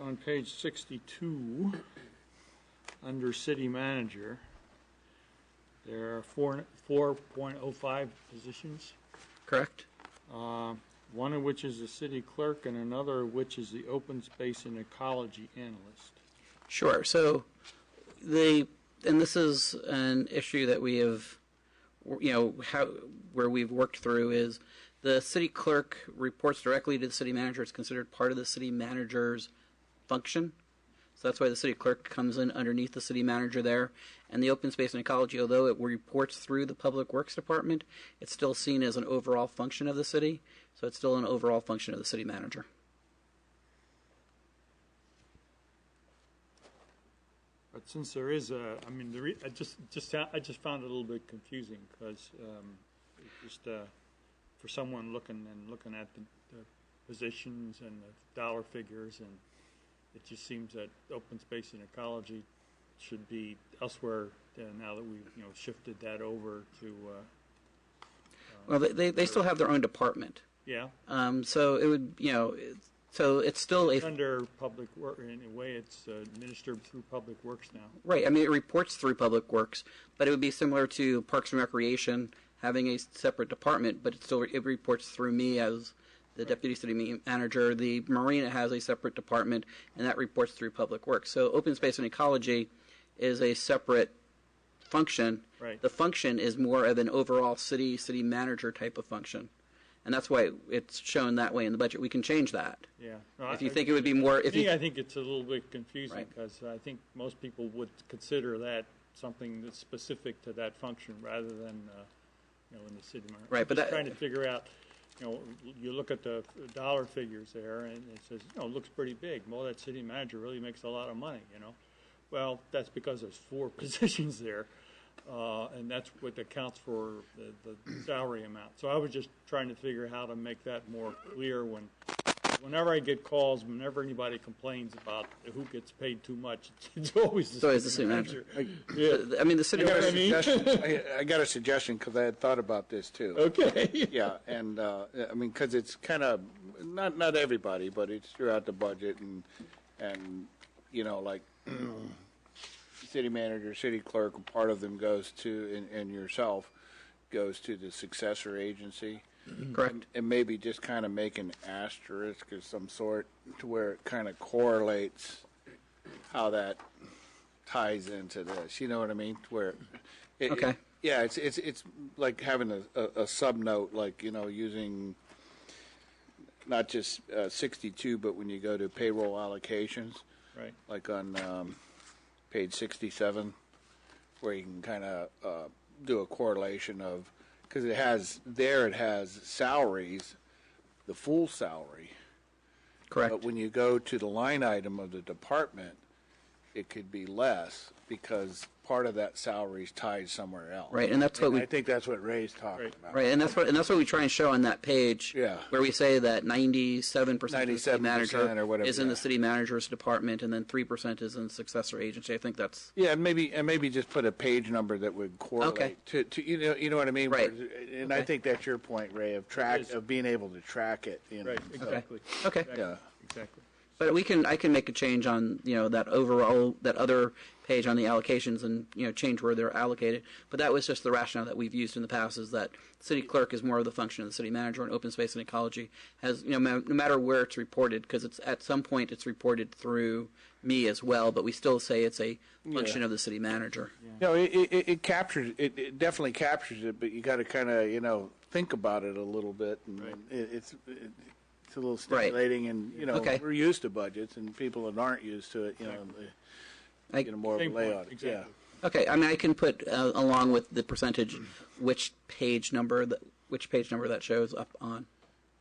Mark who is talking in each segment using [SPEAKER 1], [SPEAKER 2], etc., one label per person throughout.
[SPEAKER 1] on page sixty-two, under city manager, there are four, four point oh five positions,
[SPEAKER 2] correct?
[SPEAKER 1] uh, one of which is the city clerk and another of which is the open space and ecology analyst.
[SPEAKER 2] Sure. So the and this is an issue that we have, you know, how where we've worked through is the city clerk reports directly to the city manager. It's considered part of the city manager's function. So that's why the city clerk comes in underneath the city manager there. And the open space and ecology, although it reports through the public works department, it's still seen as an overall function of the city. So it's still an overall function of the city manager.
[SPEAKER 1] But since there is a, I mean, the re, I just, just, fo- I just found it a little bit confusing, because, um, it just, uh, for someone looking and looking at the, the positions and the dollar figures, and it just seems that open space and ecology should be elsewhere, uh, now that we've, you know, shifted that over to, uh,
[SPEAKER 2] Well, they, they, they still have their own department.
[SPEAKER 1] yeah,
[SPEAKER 2] Um, so it would, you know, it- so it's still a
[SPEAKER 1] under public work, in a way, it's uh, administered through public works now.
[SPEAKER 2] right. I mean, it reports through Public Works, but it would be similar to Parks and Recreation having a separate department, but it still it reports through me as the deputy city ma- manager. The marina has a separate department, and that reports through Public Works. So open space and ecology is a separate function.
[SPEAKER 1] Right.
[SPEAKER 2] The function is more of an overall city city manager type of function, and that's why it's shown that way in the budget. We can change that.
[SPEAKER 1] Yeah. No,
[SPEAKER 2] If
[SPEAKER 1] I-
[SPEAKER 2] you think it would be more, if
[SPEAKER 1] To me,
[SPEAKER 2] you,
[SPEAKER 1] I think it's a little bit confusing
[SPEAKER 2] Right.
[SPEAKER 1] because I think most people would consider that something that's specific to that function rather than, uh, you know, in the city. mar-
[SPEAKER 2] Right, but
[SPEAKER 1] Just
[SPEAKER 2] that-
[SPEAKER 1] Trying to figure out, you know, you look at the dollar figures there and it says, you know, it looks pretty big. Well, that city manager really makes a lot of money, you know? Well, that's because there's four positions there. Uh, and that's what accounts for the, the salary amount. So I was just trying to figure how to make that more clear when, whenever I get calls, whenever anybody complains about who gets paid too much, it's always the
[SPEAKER 2] So it's the
[SPEAKER 1] city
[SPEAKER 2] city manager.
[SPEAKER 1] manager. Yeah,
[SPEAKER 2] I mean, the city.
[SPEAKER 1] You know what I mean?
[SPEAKER 3] Suggestion- I I got a suggestion because I had thought about this too.
[SPEAKER 1] okay.
[SPEAKER 3] Yeah, and uh, I mean, because it's kind of, not, not everybody, but it's throughout the budget and, and, you know, like city manager, city clerk, part of them goes to, and, and yourself, goes to the successor agency.
[SPEAKER 2] Correct.
[SPEAKER 3] And maybe just kind of make an asterisk of some sort to where it kind of correlates how that ties into this. You know what I mean? Where it,
[SPEAKER 2] Okay.
[SPEAKER 3] it- yeah, it's it's it's like having a, a, a sub note, like you know, using not just uh, sixty-two, but when you go to payroll allocations,
[SPEAKER 1] Right.
[SPEAKER 3] like on um, page sixty-seven, where you can kind of uh, do a correlation of because it has there it has salaries, the full salary.
[SPEAKER 2] Correct.
[SPEAKER 3] But when you go to the line item of the department, it could be less because part of that salary is tied somewhere else.
[SPEAKER 2] Right, and that's what we-
[SPEAKER 3] I think that's what Ray's talking
[SPEAKER 1] Right.
[SPEAKER 3] about.
[SPEAKER 2] Right, and that's what and that's what we try and show on that page.
[SPEAKER 3] Yeah.
[SPEAKER 2] Where we say that ninety-seven percent of the city
[SPEAKER 3] 97%
[SPEAKER 2] manager
[SPEAKER 3] or whatever,
[SPEAKER 2] is in the
[SPEAKER 3] yeah.
[SPEAKER 2] city manager's department, and then three percent is in successor agency. I think that's
[SPEAKER 3] Yeah, and maybe and maybe just put a page number that would correlate
[SPEAKER 2] Okay.
[SPEAKER 3] to, to you know you know what I mean.
[SPEAKER 2] Right.
[SPEAKER 3] And I
[SPEAKER 2] Okay.
[SPEAKER 3] think that's your point, Ray, of
[SPEAKER 1] It
[SPEAKER 3] track
[SPEAKER 1] is.
[SPEAKER 3] of being able to track it. You know.
[SPEAKER 1] Right.
[SPEAKER 3] so-
[SPEAKER 1] Exactly.
[SPEAKER 2] okay.
[SPEAKER 1] Exactly.
[SPEAKER 3] Yeah.
[SPEAKER 1] Exactly.
[SPEAKER 2] But we can I can make a change on you know that overall that other page on the allocations and you know change where they're allocated. But that was just the rationale that we've used in the past is that city clerk is more of the function of the city manager, and open space and ecology has you know ma- no matter where it's reported because it's at some point it's reported through me as well, but we still say it's a function of the city manager.
[SPEAKER 3] No, it, it, it- it captures it, it definitely captures it, but you got to kind of you know think about it a little bit, and
[SPEAKER 1] Right.
[SPEAKER 3] it, it's it, it's a little
[SPEAKER 2] Right.
[SPEAKER 3] stimulating, and you know
[SPEAKER 2] Okay.
[SPEAKER 3] we're used to budgets, and people that aren't used to it, you know,
[SPEAKER 2] I-
[SPEAKER 3] they get a more of a
[SPEAKER 1] Same point,
[SPEAKER 3] layout. Yeah,
[SPEAKER 1] exactly.
[SPEAKER 2] Okay, I mean, I can put uh, along with the percentage which page number that which page number that shows up on.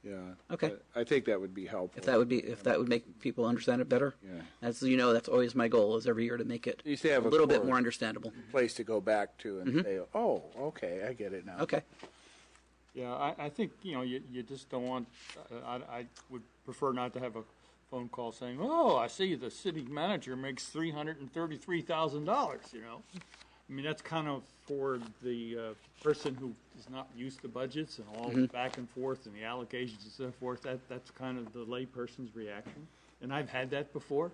[SPEAKER 3] yeah.
[SPEAKER 2] Okay.
[SPEAKER 3] I think that would be helpful.
[SPEAKER 2] If that would be if that would make people understand it better.
[SPEAKER 3] Yeah.
[SPEAKER 2] As you know, that's always my goal is every year to make it
[SPEAKER 3] You used to have
[SPEAKER 2] a
[SPEAKER 3] a
[SPEAKER 2] little bit
[SPEAKER 3] core.
[SPEAKER 2] more understandable.
[SPEAKER 3] place to go back to and say, oh, okay, I get it now.
[SPEAKER 2] Mm-hmm. Okay.
[SPEAKER 1] Yeah, I, I think, you know, you, you just don't want, I, I- I would prefer not to have a phone call saying, oh, I see the city manager makes three hundred and thirty-three thousand dollars, you know? I mean, that's kind of for the, uh, person who is not used to budgets and all the back and forth and the allocations and so forth, that, that's kind of the layperson's reaction. And I've had that before.